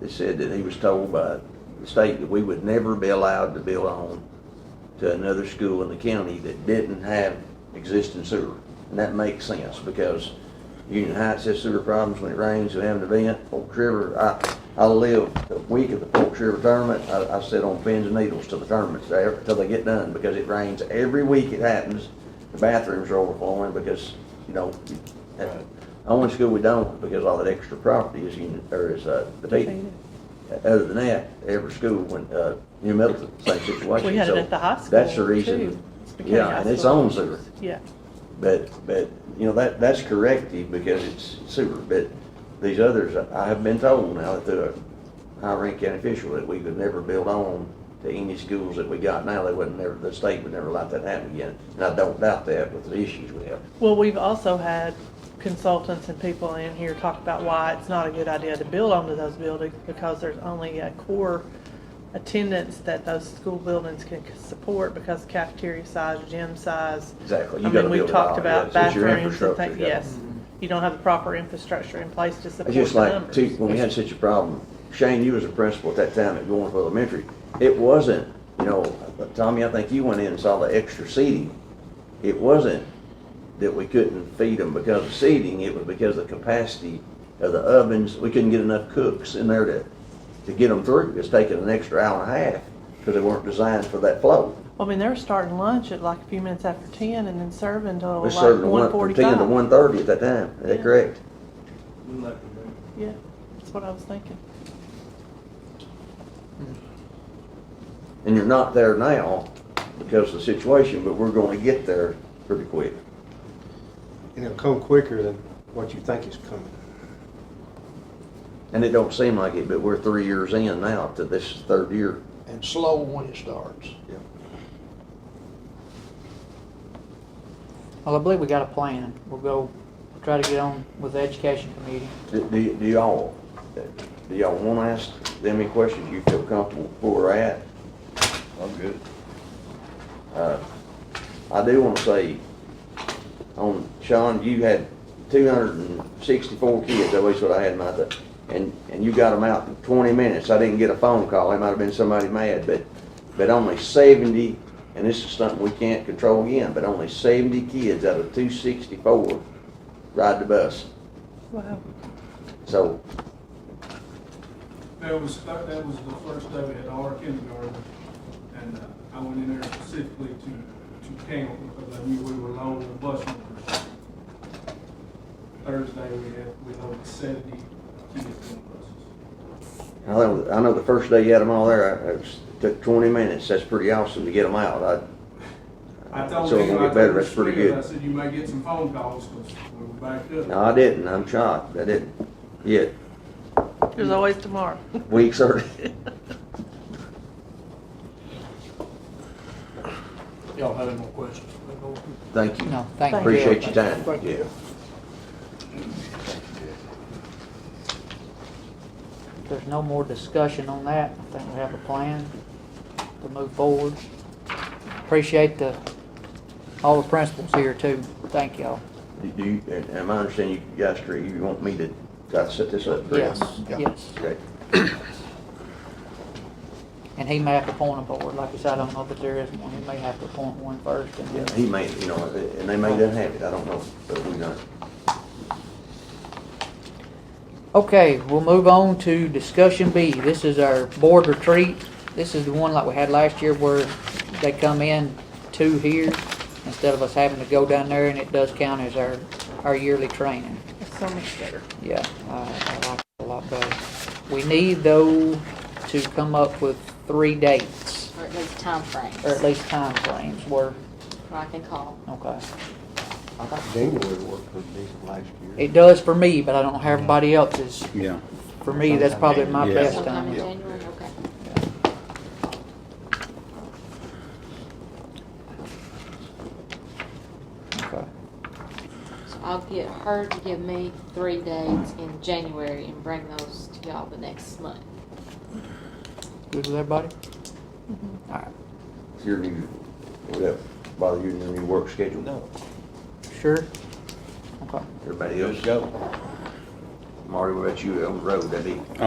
that said that he was told by the state that we would never be allowed to build on to another school in the county that didn't have existing sewer. And that makes sense because Union Heights has sewer problems when it rains, we have an event, Forks River, I, I lived a week at the Forks River tournament, I, I sit on pins and needles till the tournaments, there- till they get done, because it rains every week it happens. The bathrooms are overflowing because, you know, at Right. the only school we don't, because all that extra property is, Union- or is, uh, Batavia. Other than that, every school, when, uh, New Middleton, same situation. We had So it at the high school. That's the reason, too. It's because yeah, high and it's school- own sewer. Yeah, But, but, you know, that, that's corrective because it's sewer, but these others, I have been told now that they're a high rank county official that we could never build on to any schools that we got now, they wouldn't never, the state would never let that happen again. And I don't doubt that with the issues we have. well, we've also had consultants and people in here talk about why it's not a good idea to build onto those buildings because there's only a core attendance that those school buildings can support because cafeteria size, gym size. Exactly. You I gotta mean, we've build it talked all, about yes. It's your bathrooms and infrastructure, things, yeah. yes. You don't have the proper infrastructure in place to support It's the just like, numbers. too, when we had such a problem, Shane, you was a principal at that time at Goins Elementary. It wasn't, you know, Tommy, I think you went in and saw the extra seating. It wasn't that we couldn't feed them because of seating, it was because of the capacity of the ovens. We couldn't get enough cooks in there to, to get them through. It's taking an extra hour and a half because they weren't designed for that flow. Well, I mean, they were starting lunch at like a few minutes after ten and then serving until We served Oh, like them one one, from ten to forty-five. one thirty at that time. Is that Yeah. correct? Yeah, that's what I was thinking. And you're not there now because of the situation, but we're gonna get there pretty quick. And it'll come quicker than what you think is coming. And it don't seem like it, but we're three years in now to this third year. and slow when it starts. Well, I believe we got a plan. We'll go, try to get on with the education committee. Do, do y- do y'all, do y'all wanna ask them any questions you feel comfortable where we're at? I'm good. Uh, I do wanna say, on, Sean, you had two hundred and sixty-four kids, that was what I had in my, th- and, and you got them out in twenty minutes. I didn't get a phone call, it might have been somebody mad, but, but only seventy, and this is something we can't control again, but only seventy kids out of two sixty-four ride the bus. Wow. So, That was, that that was the first day we had our kindergarten, and uh, I went in there specifically to, to count because I knew we were low on the bus numbers. Thursday, we had, we loaded seventy kids on the buses. I know, I know the first day you had them all there, I- it was- took twenty minutes, that's pretty awesome to get them out. I, I told So it him, won't I get better, told the that's pretty student, I good. said, you may get some phone calls because we were backed up. no, I didn't, I'm shocked, I didn't, yet, There's always tomorrow. weeks early. Y'all have any more questions? Let go. Thank you, No, thank you. appreciate your time, Thank you. yeah. If there's no more discussion on that, I think we have a plan to move forward. Appreciate the, all the principals here too. Thank y'all. Do- Do you, and and I understand you guys, agree, you want me to, gotta set this up? correct? Yes, yes. Okay, And he may have to appoint a board. Like I said, I don't know if there is one. He may have to appoint one first and yeah, then. he may, you know, and they may not have it, I don't know, but we don't. Okay, we'll move on to discussion B. This is our board retreat. This is the one like we had last year where they come in two here instead of us having to go down there and it does count as our, our yearly training. It's so much better. Yeah, I, I like it a lot better. We need though to come up with three dates or at least time or at timeframes, least timeframes where, rock and call. okay. I thought January worked pretty decent last year. It does for me, but I don't know how everybody else's. Yeah. For me, that's probably my Yeah. best Sometime in time. January, okay. Okay. So I'll get her to give me three dates in January and bring those to y'all the next month. Good with everybody? All right. Your new, would that bother you in your new work schedule? No. Sure. Okay. Everybody else? go. Marty, what about you on the road, that be?